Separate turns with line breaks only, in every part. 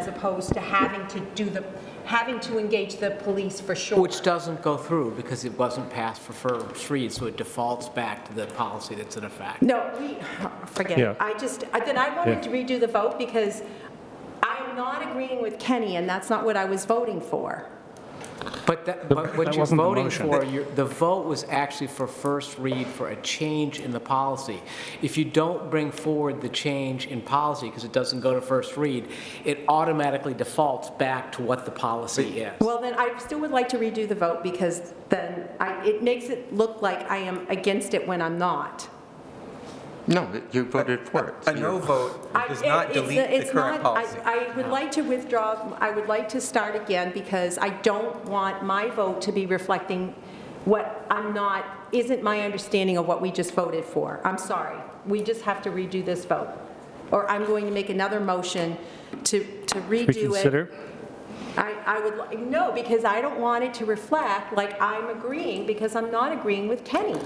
opposed to having to do the, having to engage the police for sure.
Which doesn't go through because it wasn't passed for first read, so it defaults back to the policy that's in effect.
No, we, forget
Yeah.
it. I just, I- then I wanted to redo the vote because I'm not agreeing with Kenny, and that's not what I was voting for.
But that, but what
that
you're
wasn't the
voting
motion.
for, you're- the vote was actually for first read for a change in the policy. If you don't bring forward the change in policy because it doesn't go to first read, it automatically defaults back to what the policy is.
Well, then I still would like to redo the vote because then I, it makes it look like I am against it when I'm not.
No, that you voted for it.
A no vote
I-
does not
it- it's-
delete the
it's
current
not- I-
policy.
I would like to withdraw, I would like to start again because I don't want my vote to be reflecting what I'm not, isn't my understanding of what we just voted for. I'm sorry. We just have to redo this vote. Or I'm going to make another motion to to redo it.
Reconsider?
I, I would, li- no, because I don't want it to reflect like I'm agreeing because I'm not agreeing with Kenny.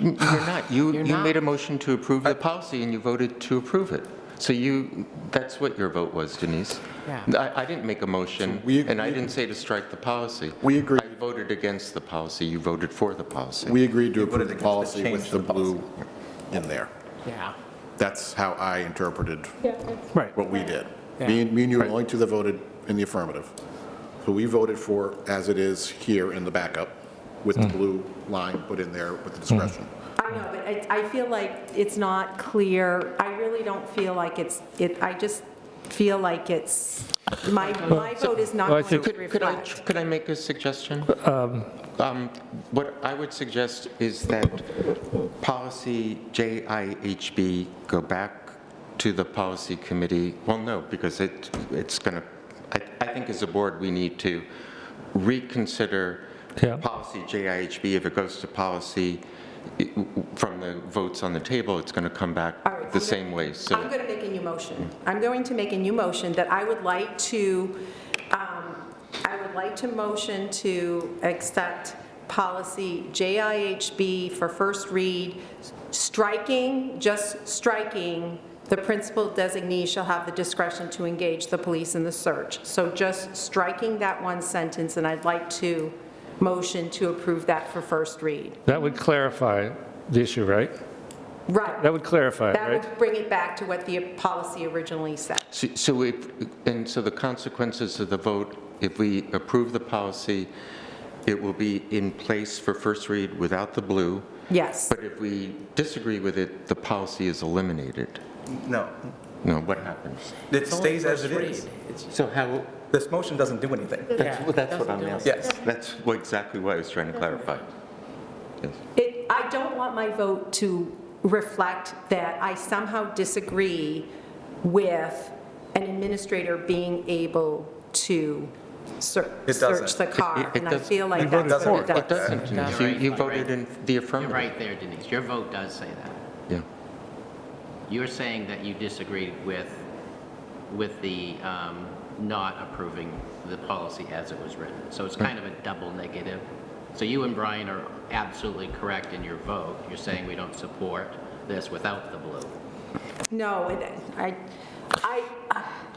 You're not. You,
You're
you
not.
made a motion to approve the policy and you voted to approve it. So you, that's what your vote was, Denise.
Yeah.
I, I didn't make a motion
we ag-
and I
we-
didn't say to strike the policy.
We agree.
I voted against the policy. You voted for the policy.
We agreed to
You voted
approve the
against the
policy
change
with
to
the
the
blue in there.
Yeah.
That's how I interpreted
Right.
what we did.
Yeah.
Me and me and you were the only two that voted in the affirmative. So we voted for as it is here in the backup with
Mm.
the blue line put in there with the discretion.
I know, but I, I feel like it's not clear. I really don't feel like it's, it, I just feel like it's, my, my vote is not
Well, I
going to
think-
Could, could I,
reflect.
could I make a suggestion? Um, What I would suggest is that policy JIHB go back to the policy committee. Well, no, because it, it's going to, I, I think as a board, we need to reconsider
Yeah.
policy JIHB. If it goes to policy, it- from the votes on the table, it's going to come back
All right,
the
I'm gonna-
same way, so.
I'm going to make a new motion. I'm going to make a new motion that I would like to, um, I would like to motion to accept policy JIHB for first read, striking, just striking, the principal designee shall have the discretion to engage the police in the search. So just striking that one sentence, and I'd like to motion to approve that for first read.
That would clarify the issue, right? That
Right.
would clarify, it,
That
right?
would bring it back to what the policy originally said.
So- So if, and so the consequences of the vote, if we approve the policy, it will be in place for first read without the blue,
Yes.
but if we disagree with it, the policy is eliminated.
No,
No, what happens?
it stays as it is.
So how,
This motion doesn't do anything.
that's well, that's what I'm asking.
Yes.
That's what- exactly what I was trying to clarify. Yes.
It, I don't want my vote to reflect that I somehow disagree with an administrator being able to ser-
It doesn't.
search the
It-
car.
it
And I
does-
feel
We
like that's
voted
what it
for it.
does.
It doesn't, Denise. You- you voted in the
You're
affirmative.
right there, Denise. Your vote does say that.
Yeah.
You're saying that you disagree with, with the um, not approving the policy as it was written. So it's kind of a double negative. So you and Brian are absolutely correct in your vote. You're saying we don't support this without the blue.
No, it- I, I,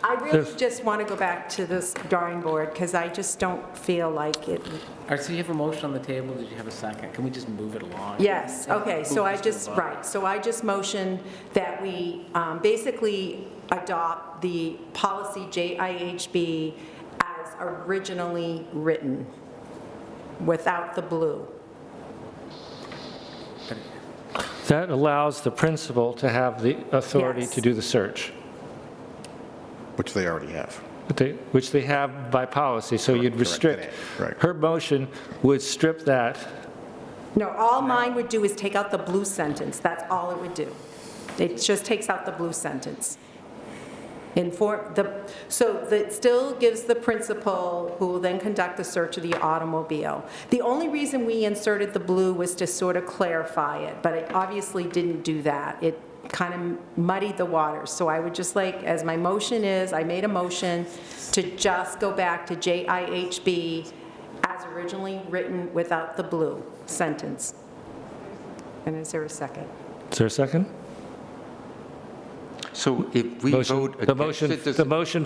I really
Yes.
just want to go back to this drawing board because I just don't feel like it,
All right, so you have a motion on the table, did you have a second? Can we just move it along?
Yes, okay, so I
Move this
just,
to the bottom.
right, so I just motion that we um, basically adopt the policy JIHB as originally written, without the blue.
That allows the principal to have the authority
Yes.
to do the search,
Which they already have.
but they- which they have by policy, so you'd restrict.
Right.
Her motion would strip that,
No, all mine would do is take out the blue sentence, that's all it would do. It just takes out the blue sentence. Inform, the, so that still gives the principal, who will then conduct the search of the automobile. The only reason we inserted the blue was to sort of clarify it, but it obviously didn't do that. It kind of muddied the waters. So I would just like, as my motion is, I made a motion to just go back to JIHB as originally written without the blue sentence. And is there a second?
is there a second?
So if we
Motion-
vote
the
against
motion-
it, does
The
it-
motion